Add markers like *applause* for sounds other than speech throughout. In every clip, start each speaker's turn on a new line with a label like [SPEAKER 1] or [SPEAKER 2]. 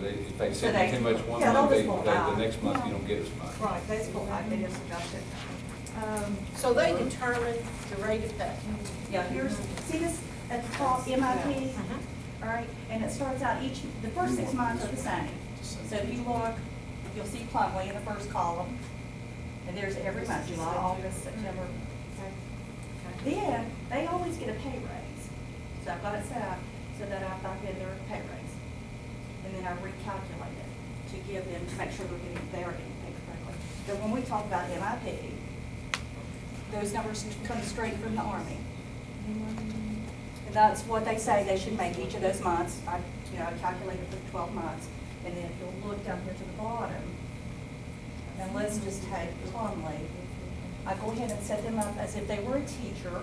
[SPEAKER 1] they, if they
[SPEAKER 2] So
[SPEAKER 1] send you
[SPEAKER 2] they-
[SPEAKER 1] too much one
[SPEAKER 2] yeah, they'll
[SPEAKER 1] month, they,
[SPEAKER 2] just pull
[SPEAKER 1] they- the
[SPEAKER 2] back.
[SPEAKER 1] next month you don't get as much.
[SPEAKER 2] Right, they just pull back, they just adjust it. Um,
[SPEAKER 3] So they determine the rate of pay.
[SPEAKER 2] Yeah, here's,
[SPEAKER 4] See this, at the top, MIP, all right, and it starts out each, the first six months are the same. So if you look, you'll see Plumway in the first column, and there's every month, July, August, September. Then, they always get a pay raise, so I've got it set up so that I back in their pay raise. And then I recalculate it to give them, to make sure they're getting, they are getting paid correctly. But when we talk about MIP, those numbers come straight from the Army. And that's what they say they should make each of those months. I, you know, I calculated for twelve months. And then if you'll look down here to the bottom, and let's just take Plumlee. I go ahead and set them up as if they were a teacher.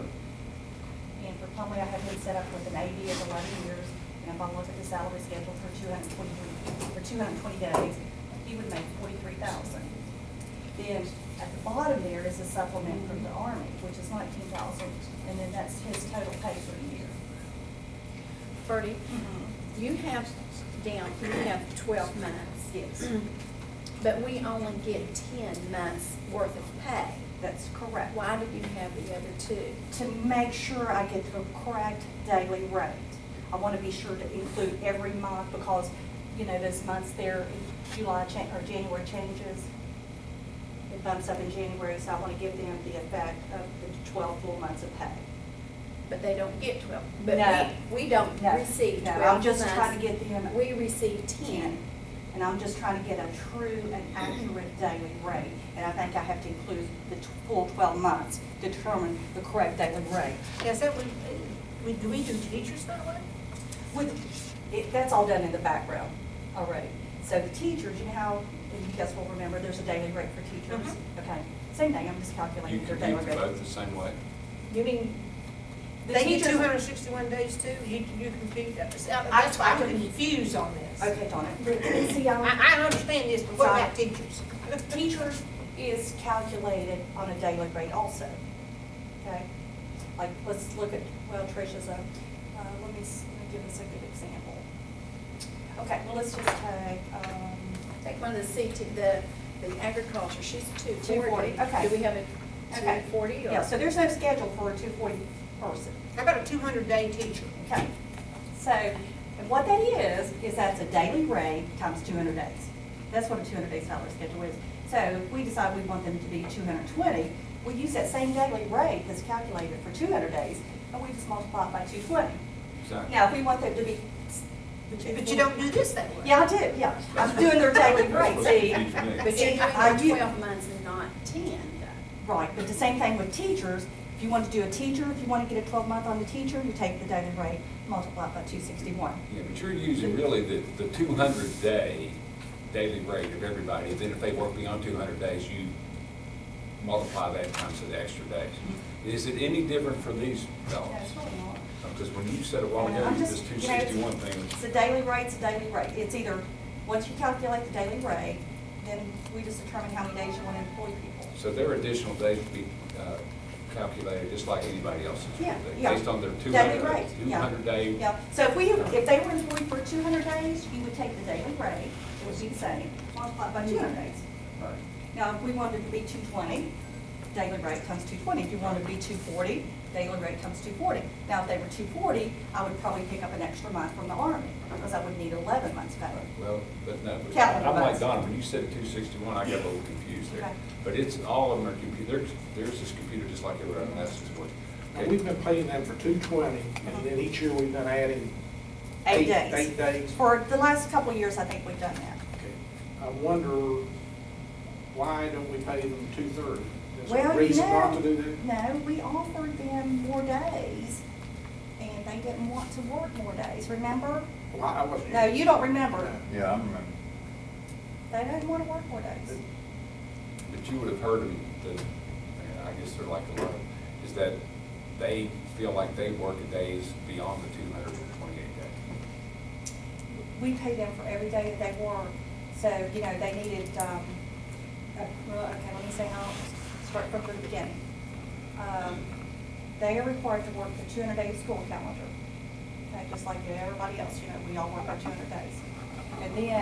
[SPEAKER 4] And for Plumlee, I have them set up with an AD of eleven years. And if I look at the salary schedule for two hundred twenty, for two hundred twenty days, he would make forty-three thousand. Then at the bottom there is a supplement from the Army, which is nineteen thousand, and then that's his total pay for the year.
[SPEAKER 3] Bertie,
[SPEAKER 4] Mm-hmm.
[SPEAKER 3] you have down, you have twelve months.
[SPEAKER 4] Yes. Mm-hmm.
[SPEAKER 3] But we only get ten months worth of pay.
[SPEAKER 4] That's correct.
[SPEAKER 3] Why do you have the other two?
[SPEAKER 4] To make sure I get the correct daily rate. I want to be sure to include every month because, you know, those months there, July cha, or January changes. It bumps up in January, so I want to give them the effect of the twelve full months of pay.
[SPEAKER 3] But they don't get twelve. But
[SPEAKER 4] No.
[SPEAKER 3] we, we don't
[SPEAKER 4] No,
[SPEAKER 3] receive
[SPEAKER 4] no, I'm
[SPEAKER 3] twelve
[SPEAKER 4] just
[SPEAKER 3] months.
[SPEAKER 4] trying to get them-
[SPEAKER 3] We receive ten.
[SPEAKER 4] And I'm just trying to get a true and accurate daily rate. And I think I have to include the t- full 12 months, to determine the correct daily rate.
[SPEAKER 5] Is that, we, we, do we do teachers that way?
[SPEAKER 4] With, it, that's all done in the background already. So the teachers, you know how, and you guys will remember, there's a daily rate for teachers.
[SPEAKER 5] Mm-hmm.
[SPEAKER 4] Okay, same thing, I'm just
[SPEAKER 1] You
[SPEAKER 4] calculating their
[SPEAKER 1] can
[SPEAKER 4] daily
[SPEAKER 1] get them
[SPEAKER 4] rate.
[SPEAKER 1] both the same way.
[SPEAKER 5] You mean,
[SPEAKER 4] The
[SPEAKER 5] they get
[SPEAKER 4] teachers-
[SPEAKER 5] two hundred and sixty-one days too? You, you confuse, that's,
[SPEAKER 4] I-
[SPEAKER 5] that's why I'm confused on this.
[SPEAKER 4] Okay,
[SPEAKER 5] *coughs*
[SPEAKER 4] Donna. See, I'm-
[SPEAKER 5] I, I understand this, but what about teachers? *laughs*
[SPEAKER 4] teachers is calculated on a daily rate also, okay? Like, let's look at, well, Tricia's a, uh, let me, s- let me give us a good example. Okay, well, let's just take, um,
[SPEAKER 3] Take one of the CT, the, the agriculture, she's two forty.
[SPEAKER 4] 240, okay.
[SPEAKER 3] Do we have a
[SPEAKER 4] Okay.
[SPEAKER 3] two forty or?
[SPEAKER 4] yeah, so there's no schedule for a two forty person,
[SPEAKER 5] How about a two hundred day teacher?
[SPEAKER 4] okay? So, and what that is, is that's a daily rate times two hundred days. That's what a two hundred day salary schedule is. So if we decide we want them to be two hundred twenty, we use that same daily rate that's calculated for two hundred days, and we just multiply it by two twenty.
[SPEAKER 1] Exactly.
[SPEAKER 4] Now, if we want them to be.
[SPEAKER 5] But you don't do this that way.
[SPEAKER 4] Yeah, I do, yeah. I'm doing their daily
[SPEAKER 1] That's
[SPEAKER 4] rate,
[SPEAKER 1] what
[SPEAKER 4] see?
[SPEAKER 1] teachers do.
[SPEAKER 3] But
[SPEAKER 4] See,
[SPEAKER 3] you're doing
[SPEAKER 4] I
[SPEAKER 3] it
[SPEAKER 4] do-
[SPEAKER 3] twelve months and not ten, though.
[SPEAKER 4] Right, but the same thing with teachers. If you want to do a teacher, if you want to get a twelve month on the teacher, you take the daily rate, multiply it by two sixty-one.
[SPEAKER 1] Yeah, but you're using really the, the two hundred day daily rate of everybody, then if they work beyond two hundred days, you multiply that times the extra days.
[SPEAKER 4] Mm-hmm.
[SPEAKER 1] Is it any different for these fellows? Because when you said a while ago,
[SPEAKER 4] I'm
[SPEAKER 1] this two
[SPEAKER 4] you know, it's-
[SPEAKER 1] sixty-one thing,
[SPEAKER 4] It's a daily rate, it's a daily rate. It's either, once you calculate the daily rate, then we just determine how many days you want to employ people.
[SPEAKER 1] so their additional days would be uh, calculated just like anybody else's. would
[SPEAKER 4] Yeah,
[SPEAKER 1] be,
[SPEAKER 4] yeah.
[SPEAKER 1] Based on their two
[SPEAKER 4] Daily
[SPEAKER 1] hundred,
[SPEAKER 4] rate,
[SPEAKER 1] two
[SPEAKER 4] yeah.
[SPEAKER 1] hundred day.
[SPEAKER 4] Yeah, so if we, if they were employed for two hundred days, you would take the daily rate, it would be the same, multiplied by two hundred days.
[SPEAKER 1] Right.
[SPEAKER 4] Now, if we wanted to be two twenty, daily rate comes two twenty. If you wanted to be two forty, daily rate comes two forty. Now, if they were two forty, I would probably pick up an extra month from the Army, because I would need eleven months pay.
[SPEAKER 1] Well, but no, but
[SPEAKER 4] Calendar
[SPEAKER 1] I'm like
[SPEAKER 4] months.
[SPEAKER 1] Donna, when you said two sixty-one, I got a little confused there.
[SPEAKER 4] Okay.
[SPEAKER 1] But it's, all of them are computer, there's this computer just like everyone else's would.
[SPEAKER 6] And We've been paying them for two twenty, and then each year we've been adding.
[SPEAKER 4] Eight days.
[SPEAKER 6] Eight days.
[SPEAKER 4] For the last couple of years, I think we've done that.
[SPEAKER 6] Okay. I wonder, why don't we pay them two-thirds? Is there
[SPEAKER 4] Well,
[SPEAKER 6] a
[SPEAKER 4] you
[SPEAKER 6] reason
[SPEAKER 4] know,
[SPEAKER 6] not to do that?
[SPEAKER 4] No, we offered them more days, and they didn't want to work more days, remember?
[SPEAKER 6] Well, I I wasn't.
[SPEAKER 4] No, you don't remember.
[SPEAKER 7] Yeah, I remember.
[SPEAKER 4] They didn't want to work more days.
[SPEAKER 1] But you would have heard of the, I guess they're like a lot, is that they feel like they work a days beyond the two hundred and twenty-eight days.
[SPEAKER 4] We pay them for every day that they work, so, you know, they needed, um, uh, well, okay, let me say, I'll start from the beginning. Um, They are required to work the two hundred day school calendar, okay, just like everybody else, you know, we all work our two hundred days. And then